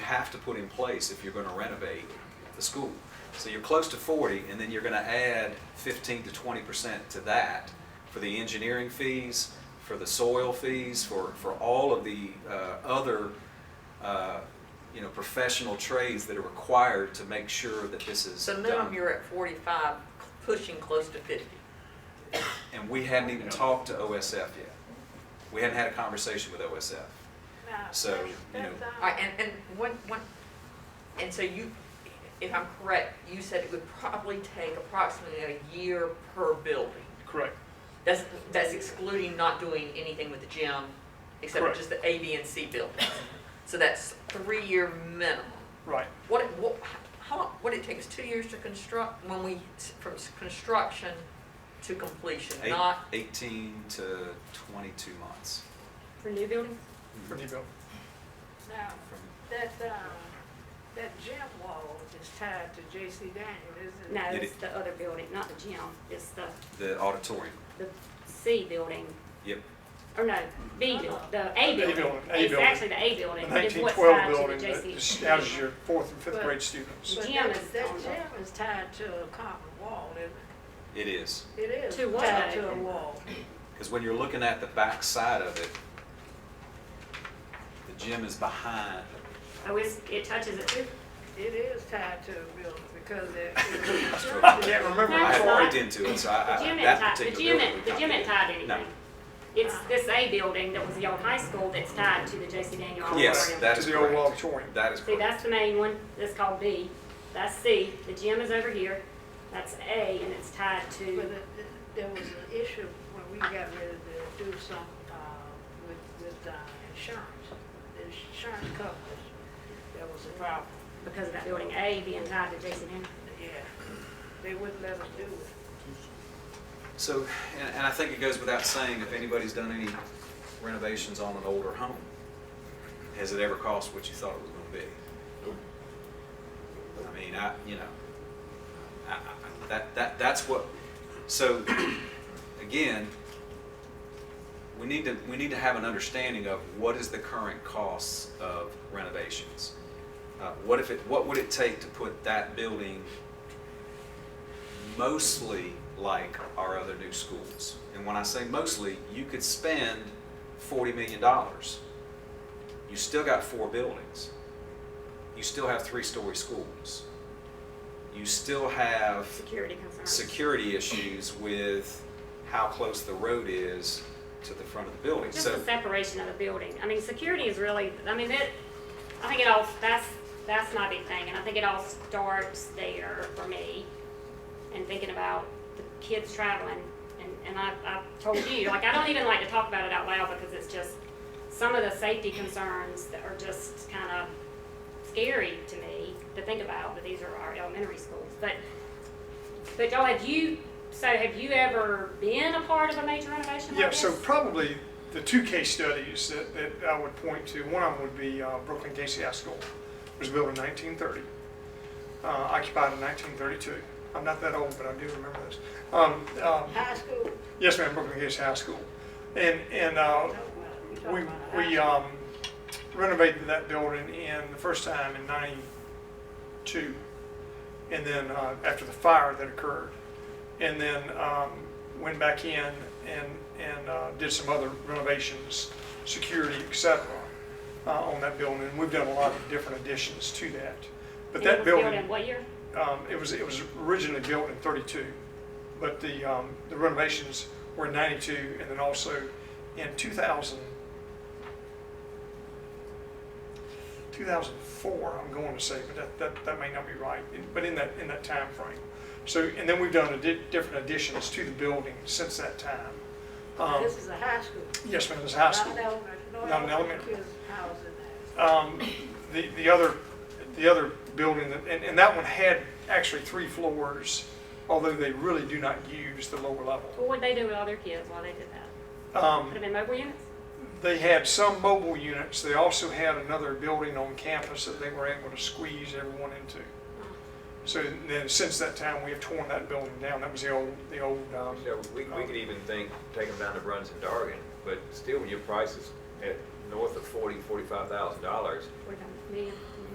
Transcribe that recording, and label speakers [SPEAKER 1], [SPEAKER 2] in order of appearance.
[SPEAKER 1] have to put in place if you're gonna renovate the school. So you're close to forty, and then you're gonna add fifteen to twenty percent to that for the engineering fees, for the soil fees, for, for all of the, uh, other, uh, you know, professional trades that are required to make sure that this is
[SPEAKER 2] So
[SPEAKER 1] done.
[SPEAKER 2] minimum, you're at forty-five, pushing close to fifty.
[SPEAKER 1] And we hadn't even talked to OSF yet. We hadn't had a conversation with OSF. So, you
[SPEAKER 3] um,
[SPEAKER 1] know-
[SPEAKER 2] All right, and, and one, one, and so you, if I'm correct, you said it would probably take approximately a year per building.
[SPEAKER 4] Correct.
[SPEAKER 2] That's, that's excluding not doing anything with the gym, except for
[SPEAKER 4] Correct.
[SPEAKER 2] just the A, B, and C buildings. So that's three-year minimum.
[SPEAKER 4] Right.
[SPEAKER 2] What, it- what, how, long- what it takes two years to construct, when we, s- from s- construction to completion,
[SPEAKER 1] Eight-
[SPEAKER 2] not
[SPEAKER 1] Eighteen to twenty-two months.
[SPEAKER 5] For new buildings?
[SPEAKER 4] For new build.
[SPEAKER 3] Now,
[SPEAKER 1] From-
[SPEAKER 3] that, um, that gym wall is tied to J.C. Daniel, isn't it?
[SPEAKER 5] No,
[SPEAKER 1] It
[SPEAKER 5] it's
[SPEAKER 1] is.
[SPEAKER 5] the other building, not the gym, it's the,
[SPEAKER 1] The auditorium,
[SPEAKER 5] the C building,
[SPEAKER 1] yep.
[SPEAKER 5] or no, B, buil- the
[SPEAKER 4] The
[SPEAKER 5] A
[SPEAKER 4] A
[SPEAKER 5] building.
[SPEAKER 4] building, A
[SPEAKER 5] It's
[SPEAKER 4] building.
[SPEAKER 5] actually the A
[SPEAKER 4] The
[SPEAKER 5] building, but it's
[SPEAKER 4] nineteen
[SPEAKER 5] what's
[SPEAKER 4] twelve
[SPEAKER 5] tied to
[SPEAKER 4] building
[SPEAKER 5] the
[SPEAKER 4] that
[SPEAKER 5] JC.
[SPEAKER 4] houses your fourth and fifth
[SPEAKER 3] But-
[SPEAKER 4] grade students.
[SPEAKER 3] But
[SPEAKER 5] Gym
[SPEAKER 3] that-
[SPEAKER 5] is
[SPEAKER 3] That
[SPEAKER 5] on the-
[SPEAKER 3] gym is tied to a common wall, isn't
[SPEAKER 1] It is.
[SPEAKER 3] it? It is
[SPEAKER 5] To what?
[SPEAKER 3] tied to a wall.
[SPEAKER 1] Because when you're looking at the back side of it, the gym is behind.
[SPEAKER 5] Oh, it's, it touches it too?
[SPEAKER 3] It is tied to a building because it.
[SPEAKER 1] I
[SPEAKER 4] Can't remember.
[SPEAKER 1] I
[SPEAKER 5] That's
[SPEAKER 1] haven't
[SPEAKER 5] not-
[SPEAKER 1] looked into it, so I,
[SPEAKER 5] The
[SPEAKER 1] I,
[SPEAKER 5] gym ain't
[SPEAKER 1] that
[SPEAKER 5] tied, the
[SPEAKER 1] particular
[SPEAKER 5] gym
[SPEAKER 1] building.
[SPEAKER 5] ain't, the
[SPEAKER 1] we
[SPEAKER 5] gym ain't
[SPEAKER 1] can't
[SPEAKER 5] tied
[SPEAKER 1] get.
[SPEAKER 5] anything. It's this A building that was the old high school that's tied to the JC Daniel
[SPEAKER 1] No. Yes,
[SPEAKER 5] auditorium.
[SPEAKER 1] that is
[SPEAKER 4] To the old
[SPEAKER 1] correct.
[SPEAKER 4] auditorium.
[SPEAKER 1] That is
[SPEAKER 5] See,
[SPEAKER 1] correct.
[SPEAKER 5] that's the main one, that's called B, that's C, the gym is over here, that's A, and it's tied
[SPEAKER 3] But
[SPEAKER 5] to,
[SPEAKER 3] it- it- there was an issue when we got ready to do some, uh, with, with, uh, insurance, the insurance coverage. There was a problem,
[SPEAKER 5] because of that building A being tied to JC Daniel.
[SPEAKER 3] yeah. They wouldn't let us do it.
[SPEAKER 1] So, and, and I think it goes without saying, if anybody's done any renovations on an older home, has it ever cost what you thought it was gonna be? I mean, I, you know, I, I, I- that, that, that's what, so, again, we need to, we need to have an understanding of what is the current costs of renovations. Uh, what if it, what would it take to put that building mostly like our other new schools. And when I say mostly, you could spend $40 million. You still got four buildings. You still have three story schools. You still have
[SPEAKER 5] Security concerns.
[SPEAKER 1] security issues with how close the road is to the front of the building.
[SPEAKER 5] Just
[SPEAKER 1] so,
[SPEAKER 5] the separation of the building. I mean, security is really, I mean, it, I think it all, that's, that's my big thing, and I think it all starts there for me. And thinking about the kids traveling, and, and I, I told you, like, I don't even like to talk about it out loud because it's just, some of the safety concerns that are just kind of scary to me to think about, but these are our elementary schools. But, but y'all, have you, so have you ever been a part of a major renovation like
[SPEAKER 4] Yeah, so
[SPEAKER 5] this?
[SPEAKER 4] probably the two case studies that, that I would point to, one of them would be uh, Brooklyn Casey High School. It was built in 1930, uh, occupied in 1932. I'm not that old, but I do remember this. Um, um,
[SPEAKER 3] High school,
[SPEAKER 4] yes, ma'am, Brooklyn Casey High School. And, and
[SPEAKER 3] no,
[SPEAKER 4] uh,
[SPEAKER 3] well, we talking
[SPEAKER 4] we,
[SPEAKER 3] about high
[SPEAKER 4] we
[SPEAKER 3] school.
[SPEAKER 4] um, renovated that building in the first time in 92. And then uh, after the fire that occurred. And then um, went back in and, and uh, did some other renovations, security, et cetera, uh, on that building. And we've done a lot of different additions to that. But
[SPEAKER 5] And it
[SPEAKER 4] that
[SPEAKER 5] was built
[SPEAKER 4] building,
[SPEAKER 5] in what year?
[SPEAKER 4] um, it was, it was originally built in thirty-two, but the, um, the renovations were in ninety-two, and then also in two thousand, two thousand four, I'm going to say, but that, that, that may not be right, but in that, in that timeframe. So, and then we've done addi- different additions to the building since that time. Um,
[SPEAKER 3] This is a high school.
[SPEAKER 4] yes, ma'am, this high
[SPEAKER 3] Not
[SPEAKER 4] school.
[SPEAKER 3] an elementary, no
[SPEAKER 4] Not an
[SPEAKER 3] elementary
[SPEAKER 4] elementary.
[SPEAKER 3] kids' house in there.
[SPEAKER 4] Um, the, the other, the other building, that- and, and that one had actually three floors, although they really do not use the lower level.
[SPEAKER 5] What would they do with all their kids while they did that? Put
[SPEAKER 4] Um,
[SPEAKER 5] them in mobile units?
[SPEAKER 4] they had some mobile units, they also had another building on campus that they were able to squeeze everyone into.
[SPEAKER 5] Oh,
[SPEAKER 4] So then, since that time, we have torn that building down, that was the old, the old, um,
[SPEAKER 6] You know, we, we could even think, take them down to Bruns and Dargan, but still, your price is at north of forty, forty-five thousand dollars.
[SPEAKER 5] Forty-five million.